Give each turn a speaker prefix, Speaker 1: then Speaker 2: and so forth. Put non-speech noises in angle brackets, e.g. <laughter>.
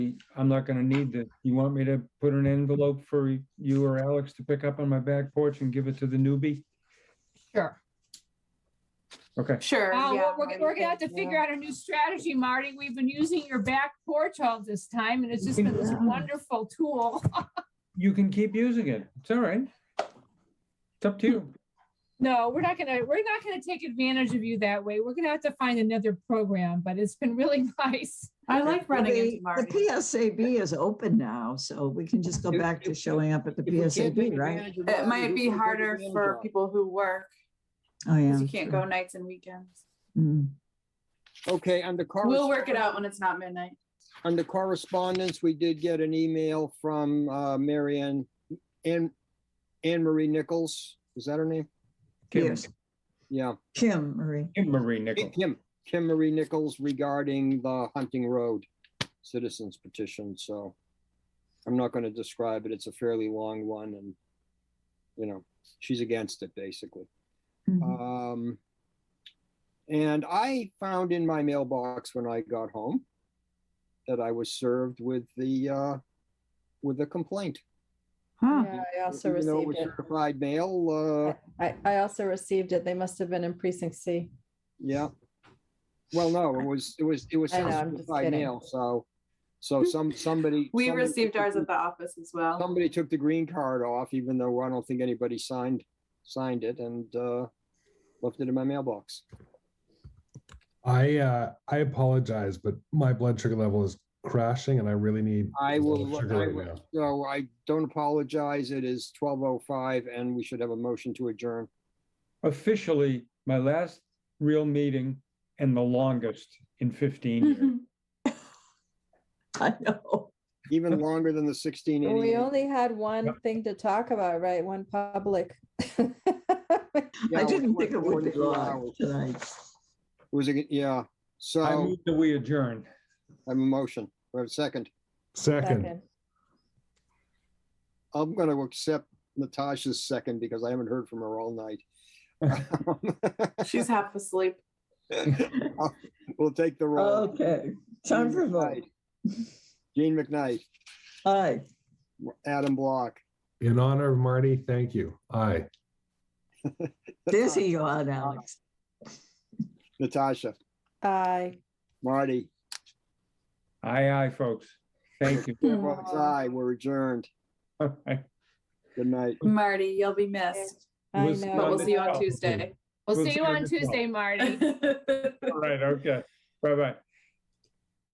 Speaker 1: I'm not gonna need this. You want me to put an envelope for you or Alex to pick up on my back porch and give it to the newbie?
Speaker 2: Sure.
Speaker 1: Okay,
Speaker 3: Sure.
Speaker 2: Uh,
Speaker 3: yeah,
Speaker 2: we're, we're, we're gonna have to figure out a new strategy, Marty. We've been using your back porch all this time and it's just been this wonderful tool.
Speaker 1: you can keep using it. It's all right. It's up to you.
Speaker 2: No, we're not gonna, we're not gonna take advantage of you that way. We're gonna have to find another program, but it's been really <laughs> nice.
Speaker 3: I like running
Speaker 4: The
Speaker 3: into
Speaker 4: the
Speaker 3: Marty.
Speaker 4: PSAB is open now, so we can just go
Speaker 5: If-
Speaker 4: back to
Speaker 5: if-
Speaker 4: showing up at the
Speaker 5: If we can't take
Speaker 4: PSAB, right?
Speaker 5: advantage of
Speaker 3: It
Speaker 5: Marty,
Speaker 3: might
Speaker 5: who
Speaker 3: be
Speaker 5: can take
Speaker 3: harder
Speaker 5: advantage
Speaker 3: for
Speaker 5: of?
Speaker 3: people who work
Speaker 4: Oh, yeah.
Speaker 3: because you can't go nights and weekends.
Speaker 4: Mm.
Speaker 5: Okay, under correspondence.
Speaker 3: We'll work it out when it's not midnight.
Speaker 5: Under correspondence, we did get an email from uh, Mary Ann, Ann, Anne Marie Nichols. Is that her name?
Speaker 1: Kim,
Speaker 4: Yes,
Speaker 5: Yeah,
Speaker 4: Kim, Marie.
Speaker 1: Kim Marie Nichols.
Speaker 5: Kim, Kim Marie Nichols regarding the Hunting Road citizens petition, so I'm not going to describe it. It's a fairly long one and, you know, she's against it, basically.
Speaker 4: Mhm.
Speaker 5: Um, and I found in my mailbox when I got home that I was served with the uh, with a complaint.
Speaker 4: Huh.
Speaker 6: Yeah, I also
Speaker 5: Even though it
Speaker 6: received
Speaker 5: was
Speaker 6: it.
Speaker 5: certified mail. Uh,
Speaker 6: I, I also received it. They must have been in precinct C.
Speaker 5: yeah. Well, no, it was it was it was
Speaker 6: I know, I'm just
Speaker 5: certified
Speaker 6: kidding.
Speaker 5: mail. So
Speaker 6: <laughs>
Speaker 5: so some somebody
Speaker 3: We
Speaker 5: somebody
Speaker 3: received
Speaker 5: took
Speaker 3: ours
Speaker 5: the-
Speaker 3: at the office as well.
Speaker 5: somebody took the green card off, even though I don't think anybody signed signed it and uh, left it in my mailbox.
Speaker 7: I uh, I apologize, but my blood sugar level is crashing, and I really need.
Speaker 5: I will,
Speaker 7: blood sugar
Speaker 5: I
Speaker 7: right
Speaker 5: will,
Speaker 7: now.
Speaker 5: so I don't apologize. It is twelve oh five and we should have a motion to adjourn.
Speaker 1: Officially, my last real meeting and the longest in fifteen years.
Speaker 4: I know. <laughs>
Speaker 5: Even longer than the sixteen
Speaker 6: We
Speaker 5: eighty.
Speaker 6: only had one thing to talk about, right? One public. <laughs> Second.
Speaker 4: I didn't think it would be live tonight.
Speaker 5: Was it, yeah, so
Speaker 1: I
Speaker 5: I'm
Speaker 1: move that we adjourn.
Speaker 5: a motion, we have a second.
Speaker 7: Second,
Speaker 5: I'm gonna accept Natasha's second because I haven't heard from her
Speaker 4: <laughs>
Speaker 5: all night.
Speaker 3: She's half asleep.
Speaker 5: <laughs> We'll take the roll.
Speaker 4: Okay, Oh, time for a vote.
Speaker 5: Gene McKnight,
Speaker 4: Aye.
Speaker 5: Adam Block.
Speaker 7: in honor of Marty, thank you. Aye.
Speaker 4: Dizzy you are, Alex.
Speaker 5: Natasha,
Speaker 6: Aye.
Speaker 5: Marty,
Speaker 1: Aye, aye, folks. Thank you.
Speaker 5: <laughs>
Speaker 1: <laughs>
Speaker 3: Hmm.
Speaker 5: Robert's aye, we're adjourned.
Speaker 1: All right.
Speaker 5: Good night.
Speaker 3: Marty, you'll be missed,
Speaker 6: I
Speaker 1: Listen,
Speaker 6: know.
Speaker 3: but we'll
Speaker 1: Um,
Speaker 3: see you on
Speaker 1: probably.
Speaker 3: Tuesday.
Speaker 2: We'll
Speaker 1: We'll
Speaker 2: see
Speaker 1: see
Speaker 2: you
Speaker 1: you
Speaker 2: on
Speaker 1: as well.
Speaker 2: Tuesday, Marty.
Speaker 1: All right, okay. Bye-bye.